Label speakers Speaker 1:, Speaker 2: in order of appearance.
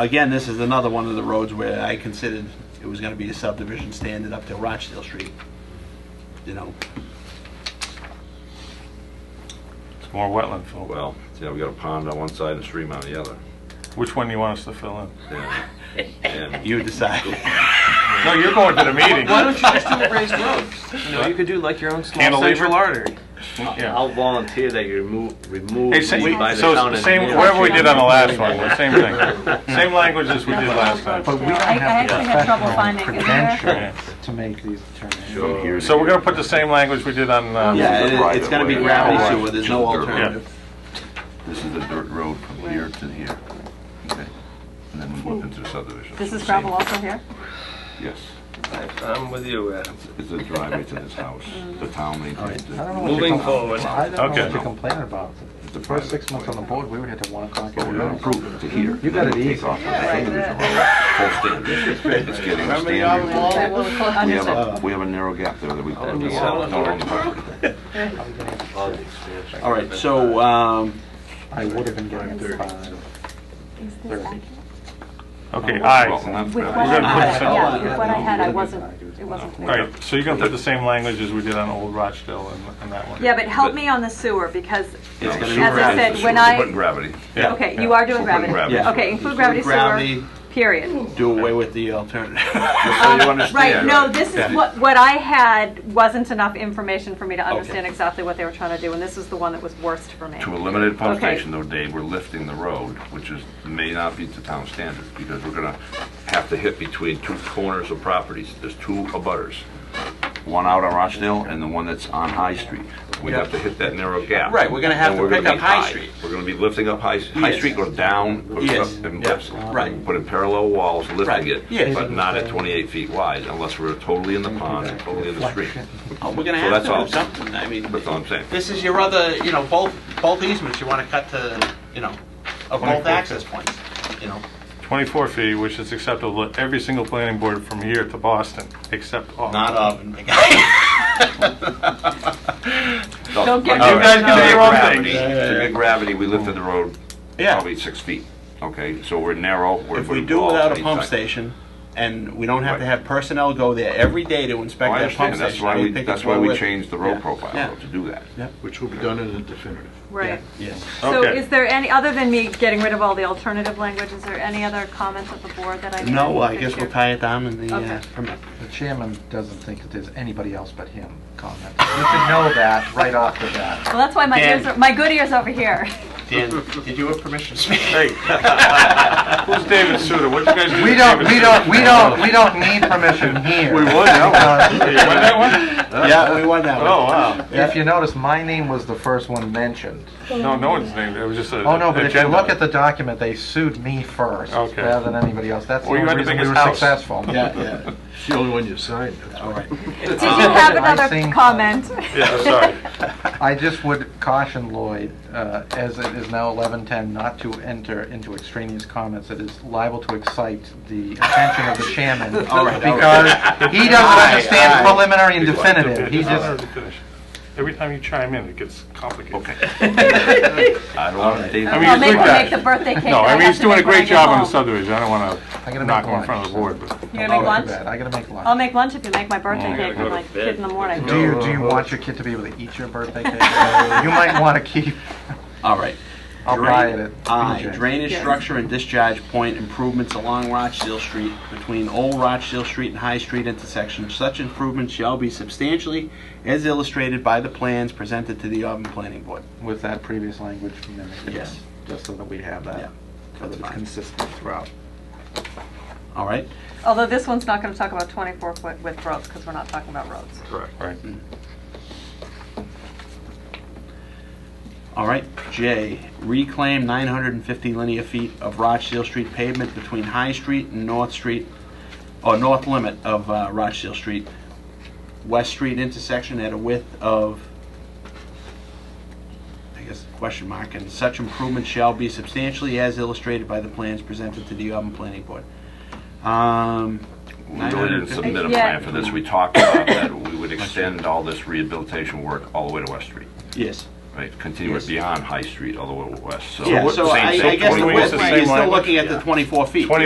Speaker 1: Again, this is another one of the roads where I considered it was gonna be a subdivision standard up to Rochdale Street. You know,
Speaker 2: It's more wetland fill.
Speaker 3: Well, yeah, we got a pond on one side and a stream on the other.
Speaker 2: Which one do you want us to fill in?
Speaker 3: And- and-
Speaker 1: you decide.
Speaker 2: No, you're going to the meeting.
Speaker 4: Why don't you just do a raised road? You know, you could do like your own small
Speaker 2: Cantilever?
Speaker 4: central artery.
Speaker 2: Yeah.
Speaker 5: I'll volunteer that you remove, remove
Speaker 2: Hey, sa-
Speaker 5: me by the
Speaker 2: so
Speaker 5: town
Speaker 2: it's the same,
Speaker 5: engineer.
Speaker 2: whatever we did on the last one, the same thing. Same language as we did last time.
Speaker 6: I I actually had trouble finding it. Is there-
Speaker 2: Yeah.
Speaker 7: to make these determinations.
Speaker 3: Sure.
Speaker 2: So we're gonna put the same language we did on, uh,
Speaker 1: Yeah, it- it's gonna be gravity sewer, there's no alternative.
Speaker 3: This is the dirt road from here to here. Okay. And then we move into subdivision.
Speaker 6: Hmm. This is gravel also here?
Speaker 3: Yes.
Speaker 4: I'm with you, Adam.
Speaker 3: It's a driveway to this house.
Speaker 6: Mm.
Speaker 3: The town maintains
Speaker 7: I don't know
Speaker 3: it.
Speaker 7: what to
Speaker 4: Moving
Speaker 7: compl-
Speaker 4: forward.
Speaker 7: I don't know
Speaker 2: Okay.
Speaker 7: what to complain about. The first six months on the board, we were here till one o'clock.
Speaker 3: But we're gonna improve it to here.
Speaker 7: You got it
Speaker 3: Then we take
Speaker 7: easy.
Speaker 3: off on the subdivision road, full standard. It's getting a standard.
Speaker 6: Right, well, close-
Speaker 3: We have
Speaker 6: Understood.
Speaker 3: a, we have a narrow gap there that we.
Speaker 5: you
Speaker 3: we
Speaker 5: sell
Speaker 3: all
Speaker 5: it
Speaker 3: know
Speaker 5: for
Speaker 3: on the property.
Speaker 5: Oh, the expansion.
Speaker 1: All right, so, um,
Speaker 7: I would have been getting it five.
Speaker 6: Is this accurate?
Speaker 2: okay, aye.
Speaker 3: Well, that's
Speaker 6: With
Speaker 3: bad.
Speaker 6: what I
Speaker 2: gonna put
Speaker 6: had,
Speaker 2: some-
Speaker 6: yeah, with what I had, I wasn't, it wasn't
Speaker 2: All
Speaker 6: clear.
Speaker 2: right, so you're gonna put the same language as we did on Old Rochdale and and that one?
Speaker 6: Yeah, but help me on the sewer, because,
Speaker 1: it's gonna
Speaker 3: As
Speaker 1: be
Speaker 6: As I
Speaker 1: gravity.
Speaker 6: said,
Speaker 3: We're
Speaker 6: when I-
Speaker 3: putting gravity.
Speaker 2: Yeah,
Speaker 6: okay,
Speaker 2: yeah.
Speaker 6: you are doing
Speaker 3: We're putting
Speaker 6: gravity.
Speaker 3: gravity.
Speaker 6: Okay, include gravity sewer,
Speaker 1: Gravity,
Speaker 6: period.
Speaker 1: do away with the alternative.
Speaker 3: So you
Speaker 6: Um, Right,
Speaker 3: understand.
Speaker 6: no, this is
Speaker 1: Yeah.
Speaker 6: what, what I had wasn't enough information for me to understand
Speaker 1: Okay.
Speaker 6: exactly what they were trying to do, and this was the one that was worst for me.
Speaker 3: To a limited pump
Speaker 6: Okay.
Speaker 3: station though, Dave, we're lifting the road, which is, may not be to town standard, because we're gonna have to hit between two corners of properties. There's two abutters. One out on Rochdale and the one that's on High Street. We have to hit that narrow gap.
Speaker 1: Right, we're gonna have
Speaker 3: And
Speaker 1: to
Speaker 3: we're gonna
Speaker 1: pick up
Speaker 3: be
Speaker 1: High Street.
Speaker 3: We're gonna be lifting up High, High
Speaker 1: Yes.
Speaker 3: Street goes down, goes
Speaker 1: Yes.
Speaker 3: up and
Speaker 1: Yeah.
Speaker 3: lifts.
Speaker 1: Right.
Speaker 3: Put in parallel walls,
Speaker 1: Right.
Speaker 3: lifting it,
Speaker 1: Yes.
Speaker 3: but not at 28 feet wide unless we're totally in the pond and totally in the street.
Speaker 1: Oh, We're gonna
Speaker 3: So
Speaker 1: have
Speaker 3: that's
Speaker 1: to
Speaker 3: all.
Speaker 1: do something, I mean,
Speaker 3: That's all I'm saying.
Speaker 1: this is your other, you know, both, both easements you wanna cut to, you know, of both access points, you know.
Speaker 2: 24 feet, which is acceptable to every single planning board from here to Boston, except Auburn.
Speaker 1: Not oven.
Speaker 6: Don't get
Speaker 3: All
Speaker 6: me
Speaker 3: right.
Speaker 6: guys can
Speaker 3: To
Speaker 6: do
Speaker 3: get
Speaker 6: your
Speaker 2: own
Speaker 3: gravity-
Speaker 2: thing.
Speaker 3: To get gravity, we lifted the road
Speaker 1: Yeah,
Speaker 3: probably six feet, okay? So we're narrow. we're-
Speaker 1: if we
Speaker 3: we're
Speaker 1: do
Speaker 3: all
Speaker 1: without a
Speaker 3: same
Speaker 1: pump
Speaker 3: size.
Speaker 1: station, and we don't have to
Speaker 3: Right.
Speaker 1: have personnel go there every day to
Speaker 3: Oh,
Speaker 1: inspect
Speaker 3: I
Speaker 1: that pump station.
Speaker 3: understand, that's why
Speaker 1: I mean,
Speaker 3: we,
Speaker 1: think
Speaker 3: that's
Speaker 1: it's
Speaker 3: why
Speaker 1: well
Speaker 3: we
Speaker 1: worth-
Speaker 3: changed the road
Speaker 1: Yeah.
Speaker 3: profile
Speaker 1: Yeah.
Speaker 3: though, to do that.
Speaker 1: Yeah.
Speaker 8: Which will be done in a definitive.
Speaker 6: Right.
Speaker 1: Yes.
Speaker 6: So
Speaker 2: Okay.
Speaker 6: is there any, other than me getting rid of all the alternative language, is there any other comments of the board that I didn't?
Speaker 1: Uh, No, I guess
Speaker 6: picture?
Speaker 1: we'll tie it down in the,
Speaker 6: Okay.
Speaker 1: uh, permit.
Speaker 7: The chairman doesn't think that there's anybody else but him commenting. You should know that right off the bat.
Speaker 6: Well, that's why my
Speaker 1: Dan.
Speaker 6: ears, are- my good ears over here.
Speaker 1: Dan, did you have permission to speak?
Speaker 2: Hey. Who's David Suter? What'd you guys do?
Speaker 7: We
Speaker 2: to
Speaker 7: don't,
Speaker 2: David
Speaker 7: we
Speaker 2: Suter?
Speaker 7: don't, we don't, we don't need permission here.
Speaker 2: We would, yeah. You want that one?
Speaker 1: Yeah, we won that one.
Speaker 2: Oh, wow.
Speaker 7: If you notice, my name was the first one mentioned.
Speaker 2: No, no one's named, it was just a
Speaker 7: Oh, no, but if you
Speaker 2: agenda.
Speaker 7: look at the document, they sued me first,
Speaker 2: Okay.
Speaker 7: rather than anybody else. That's the
Speaker 2: Well, you
Speaker 7: only
Speaker 2: had the
Speaker 7: reason we
Speaker 2: biggest
Speaker 7: were
Speaker 2: house.
Speaker 7: successful.
Speaker 1: Yeah, yeah,
Speaker 8: It's the only one you signed. that's
Speaker 1: all right.
Speaker 6: Did you have another
Speaker 7: think-
Speaker 6: comment?
Speaker 2: Yeah, I'm sorry.
Speaker 7: I just would caution Lloyd, uh, as it is now 11:10, not to enter into extraneous comments. It is liable to excite the attention of the chairman.
Speaker 1: All right, all right.
Speaker 7: Because he
Speaker 1: Aye,
Speaker 7: doesn't understand
Speaker 1: aye.
Speaker 7: preliminary and
Speaker 3: Be quiet.
Speaker 7: definitive. He
Speaker 2: Just let
Speaker 7: just,
Speaker 2: her finish. Every time you chime in, it gets complicated.
Speaker 3: Okay. I don't want Dave.
Speaker 2: I mean,
Speaker 6: I'll make,
Speaker 2: look
Speaker 6: I'll
Speaker 2: at
Speaker 6: make
Speaker 2: it.
Speaker 6: the birthday cake.
Speaker 2: No,
Speaker 6: that
Speaker 2: I mean,
Speaker 6: have
Speaker 2: he's
Speaker 6: to
Speaker 2: doing a
Speaker 6: make when I
Speaker 2: great
Speaker 6: get
Speaker 2: job on the
Speaker 6: home.
Speaker 2: subdivision, I don't want
Speaker 7: I'm
Speaker 2: to
Speaker 7: gonna
Speaker 2: knock
Speaker 7: make
Speaker 2: him in front of the
Speaker 7: lunch.
Speaker 2: board, but
Speaker 6: You're gonna make
Speaker 7: I'll make
Speaker 6: lunch? Um,
Speaker 7: lunch. Oh, I gotta make
Speaker 6: I'll
Speaker 7: lunch.
Speaker 6: make lunch if you make my birthday
Speaker 2: I
Speaker 6: cake.
Speaker 5: gotta
Speaker 6: I'm
Speaker 5: go
Speaker 6: like
Speaker 5: to bed.
Speaker 6: kid in the morning.
Speaker 7: Do you, do you want your kid to be able to eat your birthday cake? You might want to keep,
Speaker 1: All right.
Speaker 7: I'll buy it at
Speaker 1: I,
Speaker 7: BJ's.
Speaker 1: uh, drainage
Speaker 6: Yes.
Speaker 1: structure and discharge point improvements along Rochdale Street between Old Rochdale Street and High Street intersections. Such improvements shall be substantially as illustrated by the plans presented to the Auburn Planning Board.
Speaker 7: with that previous language from them.
Speaker 1: Yes.
Speaker 7: Just so that we have
Speaker 1: Yeah,
Speaker 7: that, so
Speaker 1: that's
Speaker 7: that it's
Speaker 1: fine.
Speaker 7: consistent throughout.
Speaker 1: All right?
Speaker 6: Although this one's not gonna talk about twenty-four foot width roads, because we're not talking about roads.
Speaker 2: correct, right?
Speaker 1: All right. J, reclaim 950 linear feet of Rochdale Street pavement between High Street and North Street, or north limit of uh, Rochdale Street, West Street intersection at a width of, I guess, question mark, and such improvement shall be substantially as illustrated by the plans presented to the Auburn Planning Board. Um,
Speaker 3: We really
Speaker 1: 950
Speaker 3: didn't submit a
Speaker 6: Yeah.
Speaker 3: plan for this. We talked about that. We would extend all this rehabilitation work all the way to West Street.
Speaker 1: Yes.
Speaker 3: right? Continue it
Speaker 1: Yes.
Speaker 3: beyond High Street all the way west, so.
Speaker 1: Yeah, so
Speaker 3: same
Speaker 1: I
Speaker 3: thing,
Speaker 1: I guess the
Speaker 3: twenty-four
Speaker 1: width,
Speaker 3: is the
Speaker 1: you're
Speaker 3: same
Speaker 1: still
Speaker 3: language,
Speaker 1: looking at
Speaker 3: yeah.
Speaker 1: the 24 feet.